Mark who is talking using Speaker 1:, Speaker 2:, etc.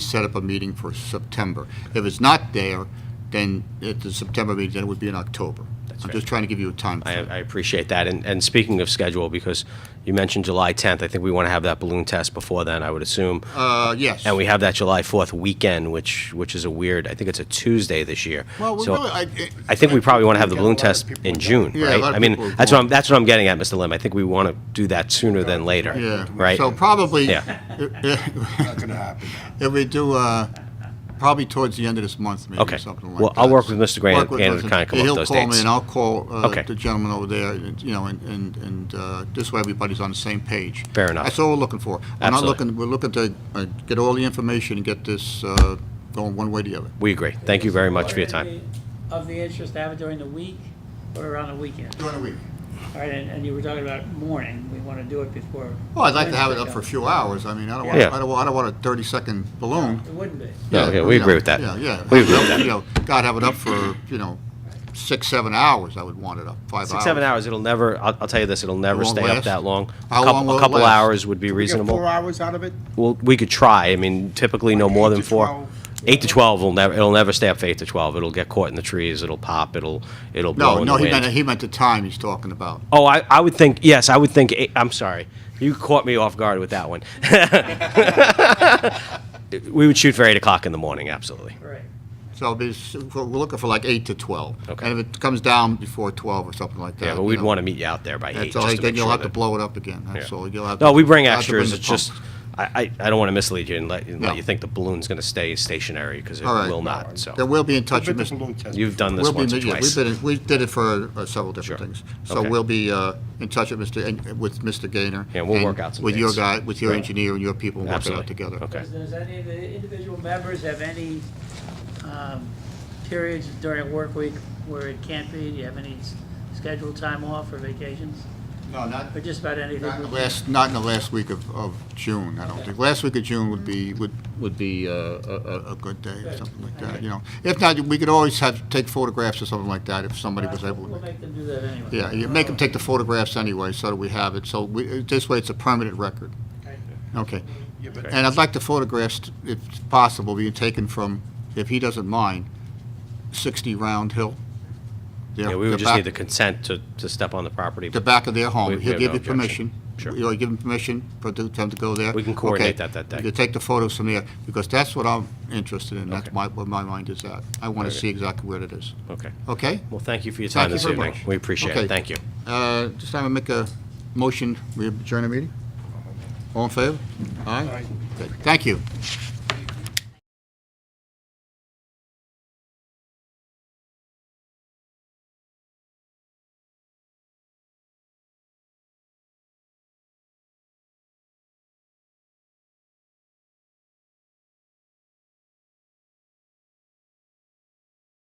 Speaker 1: set up a meeting for September. If it's not there, then at the September meeting, then it would be in October.
Speaker 2: That's
Speaker 1: I'm
Speaker 2: right.
Speaker 1: just trying to give you a time.
Speaker 2: I,
Speaker 1: frame.
Speaker 2: I appreciate that. And, and speaking of schedule, because you mentioned July 10th, I think we want to have that balloon test before then, I would assume.
Speaker 1: Uh, yes.
Speaker 2: And we have that July 4th weekend, which, which is a weird, I think it's a Tuesday this year.
Speaker 1: Well, we
Speaker 2: So
Speaker 1: really, I, it-
Speaker 2: I think we probably want to have the
Speaker 3: We've
Speaker 2: balloon
Speaker 3: got a lot of
Speaker 2: test
Speaker 3: people
Speaker 2: in
Speaker 3: going.
Speaker 2: June,
Speaker 1: Yeah, a
Speaker 2: right?
Speaker 1: lot of
Speaker 2: I mean,
Speaker 1: people are
Speaker 2: that's what
Speaker 1: going.
Speaker 2: I'm, that's what I'm getting at, Mr. Lim. I think we want to do that sooner than later,
Speaker 1: yeah.
Speaker 2: right?
Speaker 1: So probably,
Speaker 2: Yeah.
Speaker 1: if
Speaker 3: Not gonna happen now.
Speaker 1: we do, uh, probably towards the end of this month, maybe,
Speaker 2: Okay.
Speaker 1: something like that.
Speaker 2: Well, I'll work with Mr. Grant
Speaker 1: Work with
Speaker 2: and
Speaker 1: Mr.
Speaker 2: kinda come up with
Speaker 1: He'll
Speaker 2: those
Speaker 1: call me
Speaker 2: dates.
Speaker 1: and I'll call uh,
Speaker 2: Okay.
Speaker 1: the gentleman over there, and, you know, and- and, and uh, this way everybody's on the same page.
Speaker 2: Fair enough.
Speaker 1: That's all we're looking for. We're not
Speaker 2: Absolutely.
Speaker 1: looking, we're looking to uh, get all the information and get this uh, going one way or the other.
Speaker 2: We agree. Thank you very much for your time.
Speaker 4: Of the interest to have it during the week or around the weekend?
Speaker 1: During the week.
Speaker 4: All right, and, and you were talking about morning, we want to do it before.
Speaker 1: Well, Oh, I'd like to have it up for a few hours. I mean, I don't want,
Speaker 2: Yeah.
Speaker 1: I don't want, I don't want a 30-second balloon.
Speaker 4: It wouldn't be.
Speaker 2: No, yeah, we
Speaker 1: you know,
Speaker 2: agree with that.
Speaker 1: Yeah, yeah.
Speaker 2: We agree with that.
Speaker 1: You know, God, have it up for, you know, six, seven hours, I would want it up, five hours.
Speaker 2: Six, seven hours, it'll never, I'll, I'll tell you this, it'll never
Speaker 1: won't
Speaker 2: stay
Speaker 1: last?
Speaker 2: up that long. A
Speaker 1: How
Speaker 2: couple-
Speaker 1: long will it
Speaker 2: A couple
Speaker 1: last?
Speaker 2: hours would be
Speaker 3: We get
Speaker 2: reasonable.
Speaker 3: four hours out of it?
Speaker 2: Well, we could try. I mean, typically no
Speaker 3: Like
Speaker 2: more
Speaker 3: eight
Speaker 2: than
Speaker 3: to
Speaker 2: four.
Speaker 3: 12.
Speaker 2: Eight to twelve will never, it'll never stay up for eight to twelve. It'll get caught in the trees, it'll pop, it'll, it'll blow
Speaker 1: No,
Speaker 2: in the
Speaker 1: no, he meant,
Speaker 2: wind.
Speaker 1: he meant the time he's talking about.
Speaker 2: Oh, I, I would think, yes, I would think, eight- I'm sorry. You caught me off guard with that one. We would shoot for eight o'clock in the morning, absolutely.
Speaker 4: Right.
Speaker 1: So it'll be- we're looking for like 8 to 12.
Speaker 2: Okay.
Speaker 1: And if it comes down before 12 or something like that.
Speaker 2: Yeah, but
Speaker 1: you
Speaker 2: we'd
Speaker 1: know,
Speaker 2: want to meet you out there by eight,
Speaker 1: That's
Speaker 2: just
Speaker 1: all,
Speaker 2: to
Speaker 1: then
Speaker 2: make
Speaker 1: you'll
Speaker 2: sure
Speaker 1: have to
Speaker 2: that.
Speaker 1: blow it up again, that's
Speaker 2: Yeah.
Speaker 1: all. You'll have to-
Speaker 2: No, we bring
Speaker 1: you'll have to
Speaker 2: extras.
Speaker 1: the
Speaker 2: It's just,
Speaker 1: pump.
Speaker 2: I, I, I don't want to mislead you and let, and
Speaker 1: No.
Speaker 2: let you think the balloon's going to stay stationary because it
Speaker 1: All right.
Speaker 2: will not,
Speaker 1: Then
Speaker 2: so.
Speaker 1: we'll be in touch
Speaker 3: Bit
Speaker 1: with
Speaker 3: of
Speaker 1: Mr.
Speaker 3: balloon test.
Speaker 2: You've done this
Speaker 1: We'll be,
Speaker 2: once or
Speaker 1: yeah,
Speaker 2: twice.
Speaker 1: we've been, in- we did it for uh, several
Speaker 2: Sure.
Speaker 1: different things. So
Speaker 2: Okay.
Speaker 1: we'll be uh, in touch with Mr., and- with Mr. Gaynor.
Speaker 2: Yeah, we'll
Speaker 1: and
Speaker 2: work out some
Speaker 1: With your
Speaker 2: dates.
Speaker 1: guy, with your
Speaker 2: Right.
Speaker 1: engineer and your people, and work it out
Speaker 2: Absolutely.
Speaker 1: together.
Speaker 2: Okay.
Speaker 4: Does, does any of the individual members have any, um, periods during work week where it can't be? Do you have any s- scheduled time off or vacations?
Speaker 1: No, not,
Speaker 4: Or just about anything?
Speaker 1: not in the
Speaker 4: we can-
Speaker 1: last, not in the last week of, of June, I don't think. Last week of June would be, would, would be uh, a, a, a good day or
Speaker 4: Good.
Speaker 1: something like that,
Speaker 4: Okay.
Speaker 1: you know. If not, we could always have, take photographs or something like that if somebody was able to.
Speaker 4: We'll make them do that anyway.
Speaker 1: Yeah, you make them take the photographs anyway, so that we have it, so we, this way it's a permanent record.
Speaker 4: Okay.
Speaker 1: Okay.
Speaker 3: Yeah, but
Speaker 1: And I'd like the photographs, t- if possible, being taken from, if he doesn't mind, 60 Round Hill. Their-
Speaker 2: Yeah, we
Speaker 1: the
Speaker 2: would just need
Speaker 1: back-
Speaker 2: the consent to, to step on the property.
Speaker 1: The back of their
Speaker 2: We-
Speaker 1: home.
Speaker 2: we
Speaker 1: He'll
Speaker 2: have
Speaker 1: give
Speaker 2: no
Speaker 1: you
Speaker 2: objection.
Speaker 1: permission.
Speaker 2: Sure.
Speaker 1: You'll give him permission for the- them to go there.
Speaker 2: We can coordinate
Speaker 1: Okay.
Speaker 2: that that day.
Speaker 1: You take the photos from there, because that's what I'm interested in. That's
Speaker 2: Okay.
Speaker 1: my, where my mind is at. I want to
Speaker 2: Okay.
Speaker 1: see exactly where it is.
Speaker 2: Okay.
Speaker 1: Okay?
Speaker 2: Well, thank you for your
Speaker 1: Thank
Speaker 2: time
Speaker 1: you
Speaker 2: this
Speaker 1: very
Speaker 2: evening.
Speaker 1: much.
Speaker 2: We appreciate
Speaker 1: Okay.
Speaker 2: it. Thank you.
Speaker 1: Uh, Just have to make a motion, we adjourn the meeting? All in favor? Aye?
Speaker 3: Aye.
Speaker 1: Okay, Thank you.